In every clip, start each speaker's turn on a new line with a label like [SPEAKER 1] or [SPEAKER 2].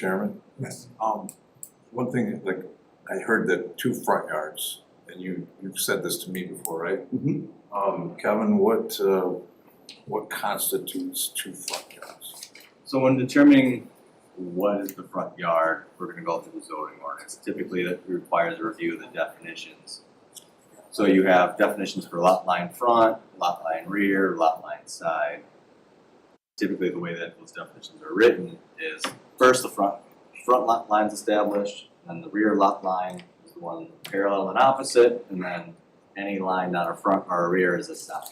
[SPEAKER 1] Chairman?
[SPEAKER 2] Yes.
[SPEAKER 1] Um, one thing, like, I heard that two front yards, and you, you've said this to me before, right?
[SPEAKER 2] Mhm.
[SPEAKER 3] Mm-hmm.
[SPEAKER 1] Um, Kevin, what, uh, what constitutes two front yards?
[SPEAKER 4] So when determining what is the front yard, we're gonna go through the zoning ordinance. Typically, that requires a review of the definitions. So you have definitions for lot line front, lot line rear, lot line side. Typically, the way that those definitions are written is first the front, front lot line's established, then the rear lot line is the one parallel and opposite, and then any line not a front or a rear is a side.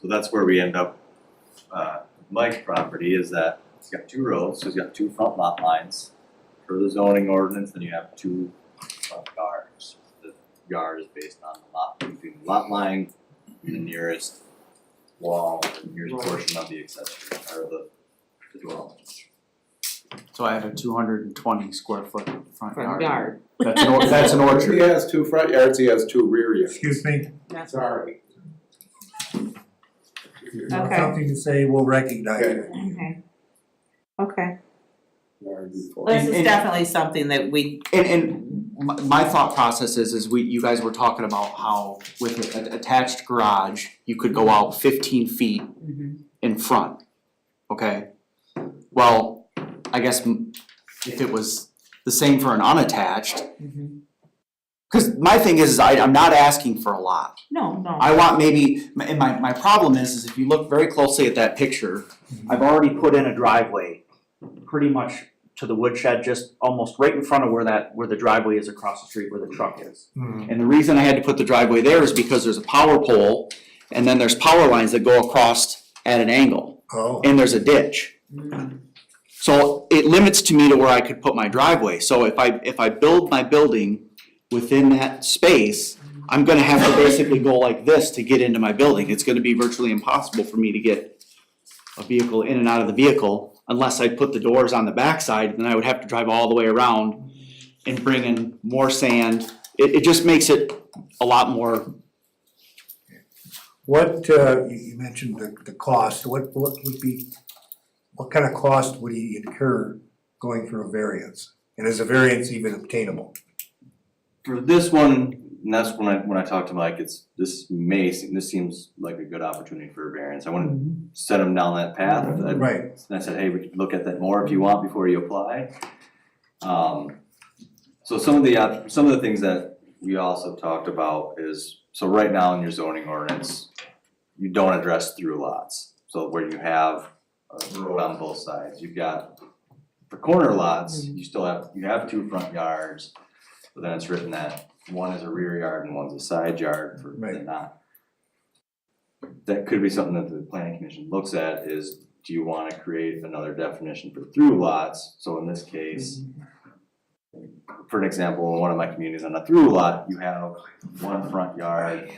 [SPEAKER 4] So that's where we end up uh, Mike's property is that it's got two roads, so it's got two front lot lines. For the zoning ordinance, then you have two front yards. The yard is based on the lot, between the lot line and the nearest wall, the nearest portion of the accessory, or the the dwelling.
[SPEAKER 5] So I have a two hundred and twenty square foot front
[SPEAKER 6] front
[SPEAKER 5] yard.
[SPEAKER 6] yard.
[SPEAKER 5] That's an or- that's an
[SPEAKER 2] He
[SPEAKER 5] orchard.
[SPEAKER 2] has two front yards, he has two rear yards.
[SPEAKER 3] Excuse me,
[SPEAKER 6] That's
[SPEAKER 2] Sorry.
[SPEAKER 3] you know,
[SPEAKER 6] Okay.
[SPEAKER 3] something to say, we'll recognize it.
[SPEAKER 6] okay. Okay,
[SPEAKER 2] Yard and four.
[SPEAKER 6] this
[SPEAKER 5] And-
[SPEAKER 6] is
[SPEAKER 5] and-
[SPEAKER 6] definitely something that we,
[SPEAKER 5] And and my my thought process is is we, you guys were talking about how with an attached garage, you could go out fifteen feet
[SPEAKER 6] Mm-hmm,
[SPEAKER 5] in front, okay? Well, I guess m- if it was the same for an unattached, cause my thing is, is I I'm not asking for a lot.
[SPEAKER 6] no, no,
[SPEAKER 5] I want maybe, and my, my problem is, is if you look very closely at that picture, I've already put in a driveway pretty much to the woodshed, just almost right in front of where that, where the driveway is across the street where the truck is.
[SPEAKER 3] Hmm.
[SPEAKER 5] And the reason I had to put the driveway there is because there's a power pole and then there's power lines that go across at an angle
[SPEAKER 3] Oh,
[SPEAKER 5] and there's a ditch. Mm-hmm. So it limits to me to where I could put my driveway, so if I, if I build my building within that space, I'm gonna have to basically go like this to get into my building, it's gonna be virtually impossible for me to get a vehicle in and out of the vehicle, unless I put the doors on the backside, then I would have to drive all the way around and bring in more sand, it, it just makes it a lot more,
[SPEAKER 3] what, uh, you, you mentioned the, the cost, what, what would be, what kind of cost would he incur going through a variance? And is a variance even obtainable?
[SPEAKER 4] For this one, and that's when I, when I talked to Mike, it's, this may, seem- this seems like a good opportunity for a variance. I wouldn't
[SPEAKER 5] Mm-hmm.
[SPEAKER 4] set him down that path. I-
[SPEAKER 3] Right,
[SPEAKER 4] And I said, hey, we could look at that more if you want before you apply. Um, so some of the, op- some of the things that we also talked about is, so right now in your zoning ordinance, you don't address through lots. So where you have a road on both sides, you've got, for corner lots, you still have, you have two front yards. But then it's written that one is a rear yard and one's a side yard for,
[SPEAKER 3] Right.
[SPEAKER 4] they're not. That could be something that the planning commission looks at is do you wanna create another definition for through lots? So in this case, for an example, in one of my communities on a through lot, you have one front yard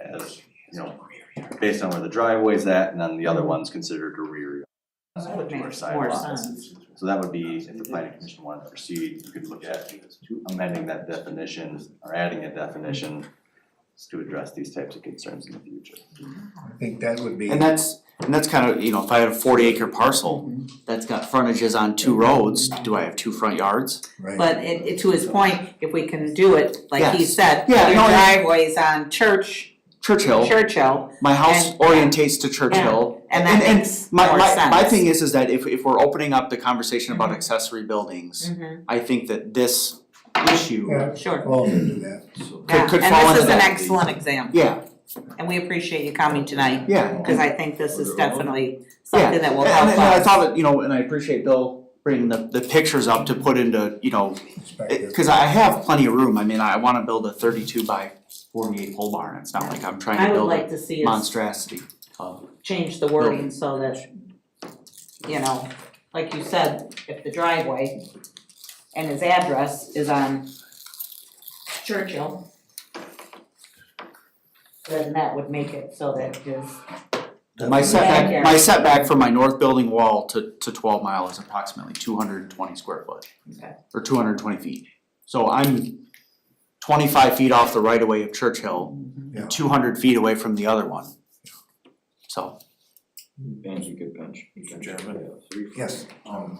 [SPEAKER 4] as, you know, based on where the driveway's at, and then the other one's considered a rear yard.
[SPEAKER 6] That would
[SPEAKER 4] Or
[SPEAKER 6] make
[SPEAKER 4] side
[SPEAKER 6] more
[SPEAKER 4] lots.
[SPEAKER 6] sense.
[SPEAKER 4] So that would be, if the planning commission wanted to proceed, you could look at amending that definition or adding a definition to address these types of concerns in the future.
[SPEAKER 3] I think that would be,
[SPEAKER 5] and that's, and that's kind of, you know, if I had a forty acre parcel
[SPEAKER 6] Mm-hmm.
[SPEAKER 5] that's got frontages on two roads, do I have two front yards?
[SPEAKER 3] right,
[SPEAKER 6] but it, it- to his point, if we can do it, like he
[SPEAKER 5] Yes.
[SPEAKER 6] said,
[SPEAKER 5] Yeah,
[SPEAKER 6] your
[SPEAKER 5] no, I-
[SPEAKER 6] driveway's on Church,
[SPEAKER 5] Churchill,
[SPEAKER 6] Churchill,
[SPEAKER 5] my house
[SPEAKER 6] And-
[SPEAKER 5] orientates to Churchill.
[SPEAKER 6] and that makes more
[SPEAKER 5] My
[SPEAKER 6] sense. Mm-hmm.
[SPEAKER 5] my my thing is is that if if we're opening up the conversation about accessory buildings,
[SPEAKER 6] Mhm,
[SPEAKER 5] I think that this issue,
[SPEAKER 3] yeah,
[SPEAKER 6] sure,
[SPEAKER 3] all of them do that.
[SPEAKER 6] yeah,
[SPEAKER 5] could fall
[SPEAKER 6] and this
[SPEAKER 5] into
[SPEAKER 6] is an
[SPEAKER 5] that.
[SPEAKER 6] excellent example,
[SPEAKER 5] yeah,
[SPEAKER 6] and we appreciate you coming tonight,
[SPEAKER 5] yeah.
[SPEAKER 6] cause I think this is definitely
[SPEAKER 5] Yeah.
[SPEAKER 6] something that will
[SPEAKER 5] And-
[SPEAKER 6] help us.
[SPEAKER 5] And I thought that, you know, and I appreciate Bill bringing the the pictures up to put into, you know, it- cause I have plenty of room, I mean, I wanna build a thirty two by forty eight pole barn, it's not like I'm trying
[SPEAKER 6] I
[SPEAKER 5] to
[SPEAKER 6] would
[SPEAKER 5] build
[SPEAKER 6] like
[SPEAKER 5] a
[SPEAKER 6] to see us
[SPEAKER 5] monstrosity of
[SPEAKER 6] change the wording so that, you know, like you said, if the driveway and his address is on Churchill, then that would make it so that his,
[SPEAKER 5] My setback,
[SPEAKER 6] Backyard.
[SPEAKER 5] my setback from my north building wall to to twelve mile is approximately two hundred and twenty square foot.
[SPEAKER 6] Okay.
[SPEAKER 5] Or two hundred and twenty feet, so I'm twenty five feet off the right of way of Churchill,
[SPEAKER 3] Yeah.
[SPEAKER 5] and two hundred feet away from the other one. So.
[SPEAKER 7] Bench, you could bench.
[SPEAKER 1] Mr. Chairman?
[SPEAKER 3] Yes.
[SPEAKER 1] Um,